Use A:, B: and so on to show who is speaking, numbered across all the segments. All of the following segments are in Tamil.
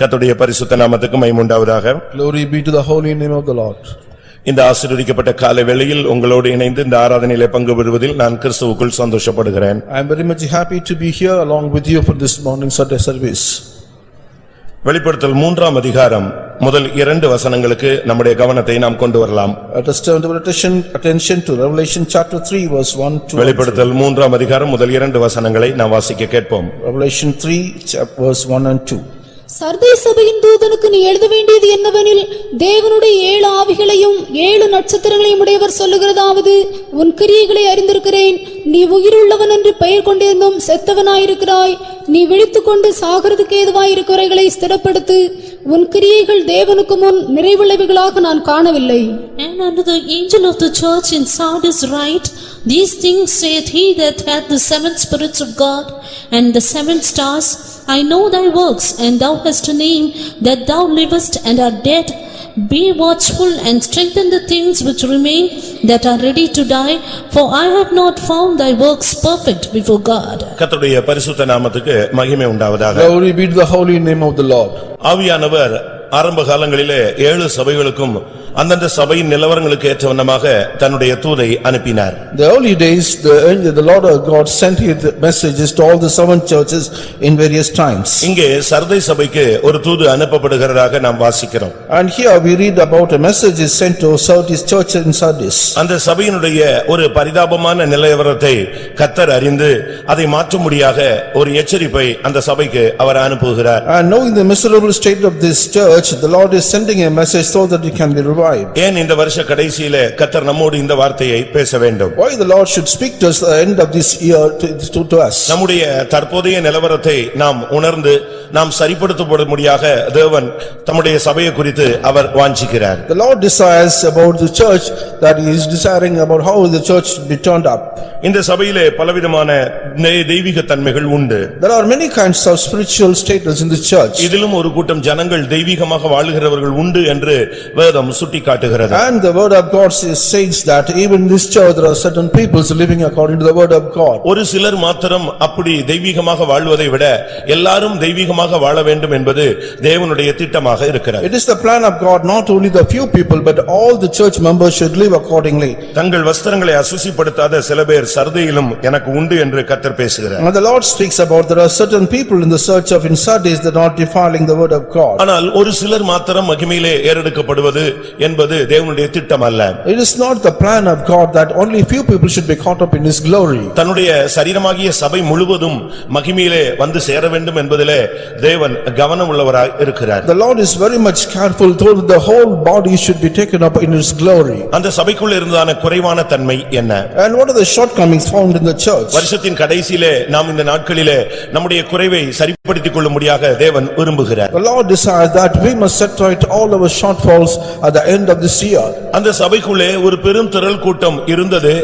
A: கர்த்தருடைய பரிசுத்த நாமத்துக்கு மைமுண்டாவதாக
B: Glory be to the holy name of the Lord.
A: இந்த ஆசீர்வதிக்கப்பட்ட காலை வேளையில் உங்களோடு இணைந்து இந்த ஆராதனையிலே பங்கு பெறுவதில் நான் கிறிஸ்துவுக்குள் சந்தோஷப்படுகிறேன்
B: I am very much happy to be here along with you for this morning Sunday service.
A: வெளிப்படுத்தல் மூன்றாம் அதிகாரம் முதல் இரண்டு வசனங்களுக்கு நம்முடைய கவனத்தை நாம் கொண்டு வரலாம்
B: Let us turn our attention attention to Revelation chapter 3 verse 1 to
A: வெளிப்படுத்தல் மூன்றாம் அதிகாரம் முதல் இரண்டு வசனங்களை நாம் வாசிக்க கேட்போம்
B: Revelation 3 chap- verse 1 and 2.
C: Sardis சபையின் தூதனுக்கு நீ எழுத வேண்டியது என்னவெனில் தேவனுடைய ஏழு ஆவிகளையும் ஏழு நட்சத்திரங்களையும் உடையவர் சொல்லுகிறதாவது உன் கிரியைகளை அறிந்திருக்கிறேன் நீ உயிருள்ளவன் என்று பெயர் கொண்டிருந்தும் செத்தவனாயிருக்கிறாய் நீ விழித்துக்கொண்டு சாகிறதுக்கு ஏதுவாயிருக்கிறவைகளை ஸ்திரப்படுத்து உன் கிரியைகள் தேவனுக்கு முன் நிறைவுள்ளவைகளாக நான் காணவில்லை
D: And unto the angel of the church in Sardis write, These things saith he that hath the seven spirits of God and the seven stars, I know thy works, and thou hast a name, that thou livest and art dead. Be watchful and strengthen the things which remain that are ready to die, for I have not found thy works perfect before God.
A: கர்த்தருடைய பரிசுத்த நாமத்துக்கு மகிமை உண்டாவதாக
B: Glory be to the holy name of the Lord.
A: ஆவியானவர் ஆரம்ப காலங்களிலே ஏழு சபைகளுக்கும் அந்தந்த சபையின் நிலவரங்களுக்கு ஏற்ற வண்ணமாக தன்னுடைய தூதை அனுப்பினார்
B: The early days, the angel- the Lord our God sent his messages to all the seven churches in various times.
A: இங்கே சர்தை சபைக்கு ஒரு தூது அனுப்பப்படுகிறதாக நாம் வாசிக்கிறோம்
B: And here we read about a message is sent to Sardis church in Sardis.
A: அந்த சபையினுடைய ஒரு பரிதாபமான நிலவரத்தை கத்தர் அறிந்து அதை மாற்றும்படியாக ஒரு எச்சரிப்பை அந்த சபைக்கு அவர் அனுப்புகிறார்
B: And knowing the miserable state of this church, the Lord is sending a message so that it can be revived.
A: ஏன் இந்த வருஷ கடைசியில கத்தர் நம்மோடு இந்த வார்த்தையை பேச வேண்டும்
B: Why the Lord should speak to us at the end of this year to- to to us?
A: நம்முடைய தற்போதைய நிலவரத்தை நாம் உணர்ந்து நாம் சரிப்படுத்தப்படும்படியாக தேவன் தம்முடைய சபையை குறித்து அவர் வாஞ்சிக்கிறார்
B: The Lord desires about the church that he is desiring about how the church should be turned up.
A: இந்த சபையிலே பலவிதமான நெ- தெய்வீக தன்மைகள் உண்டு
B: There are many kinds of spiritual status in the church
A: இதிலும் ஒரு கூட்டம் ஜனங்கள் தெய்வீகமாக வாழுகிறவர்கள் உண்டு என்று வேதம் சுட்டிக்காட்டுகிறது
B: and the word of God says says that even in this church there are certain peoples living according to the word of God.
A: ஒரு சிலர் மாத்திரம் அப்படி தெய்வீகமாக வாழ்வதை விட எல்லாரும் தெய்வீகமாக வாழ வேண்டும் என்பது தேவனுடைய திட்டமாக இருக்கிறது
B: It is the plan of God not only the few people but all the church members should live accordingly.
A: தங்கள் வஸ்திரங்களை அசுசிப்படுத்தாத சில பேர் சர்தையிலும் எனக்கு உண்டு என்று கத்தர் பேசுகிறார்
B: And the Lord speaks about there are certain people in the search of in Sardis that are not defiling the word of God.
A: ஆனால் ஒரு சிலர் மாத்திரம் மகிமையிலே ஏறெடுக்கப்படுவது என்பது தேவனுடைய திட்டம் அல்ல
B: It is not the plan of God that only few people should be caught up in his glory.
A: தன்னுடைய சரீரமாகிய சபை முழுவதும் மகிமையிலே வந்து சேர வேண்டும் என்பதிலே தேவன் கவனம் உள்ளவராய் இருக்கிறார்
B: The Lord is very much careful though the whole body should be taken up in his glory.
A: அந்த சபைக்குள் இருந்தான குறைவான தன்மை என்ன
B: And what are the shortcomings found in the church?
A: வருஷத்தின் கடைசியிலே நாம் இந்த நாட்களிலே நம்முடைய குறைவை சரிப்படுத்திக் கொள்ளும்படியாக தேவன் விரும்புகிறார்
B: The Lord desires that we must set right all our shortfalls at the end of this year.
A: அந்த சபைக்குள்ளே ஒரு பெரும் திரள் கூட்டம் இருந்தது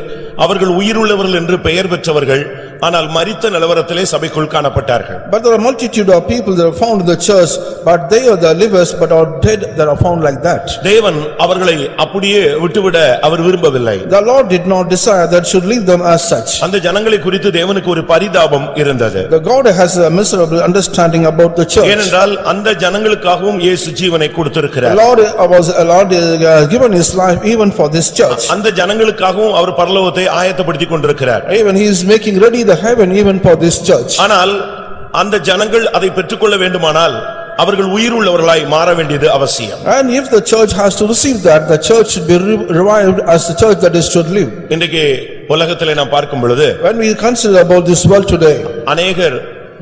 A: அவர்கள் உயிருள்ளவர்கள் என்று பெயர் பெற்றவர்கள் ஆனால் மரித்த நிலவரத்திலே சபைக்குள் காணப்பட்டார்கள்
B: But there are multitude of people that are found in the church, but they are the livers but are dead that are found like that.
A: தேவன் அவர்களை அப்படியே விட்டுவிட அவர் விரும்பவில்லை
B: The Lord did not desire that should leave them as such.
A: அந்த ஜனங்களை குறித்து தேவனுக்கு ஒரு பரிதாபம் இருந்தது
B: The God has a miserable understanding about the church.
A: ஏனென்றால் அந்த ஜனங்களுக்காகவும் இயேசு ஜீவனை
B: The
A: கொடுத்திருக்கிறார்
B: Lord was, the Lord uh, given his life even for this church.
A: அந்த ஜனங்களுக்காகவும் அவர் பரலோகத்தை ஆயத்தப்படுத்திக் கொண்டிருக்கிறார்
B: Even he is making ready the heaven even for this church.
A: ஆனால் அந்த ஜனங்கள் அதை பெற்றுக்கொள்ள வேண்டுமானால் அவர்கள் உயிருள்ளவர்களாய் மாற வேண்டியது அவசியம்
B: And if the church has to receive that, the church should be re- revived as the church that is should live.
A: இன்றைக்கு உலகத்திலே நாம் பார்க்கும் பொழுது
B: When we consider about this world today,
A: அநேகர்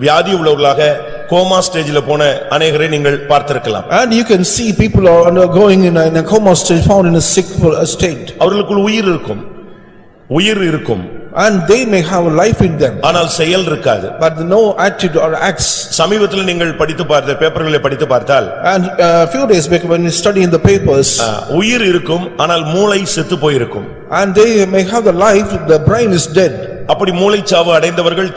A: வியாதி உள்ளவர்களாக கோமா ஸ்டேஜில் போன அநேகரை நீங்கள் பார்த்திருக்கலாம்
B: and you can see people are undergoing in a in a coma state, found in a sick uh, state,
A: அவர்களுக்குள் உயிர் இருக்கும் உயிர் இருக்கும்
B: and they may have life in them,
A: ஆனால் செயல் இருக்காது
B: but no attitude or acts.
A: சமீபத்தில் நீங்கள் படித்து பார்த்த பேப்பர்களை படித்து பார்த்தால்
B: And uh, a few days back, when we study in the papers,
A: அஹ், உயிர் இருக்கும் ஆனால் மூளை செத்து போயிருக்கும்
B: and they may have the life, the brain is dead.
A: அப்படி மூளைச்சாவு அடைந்தவர்கள்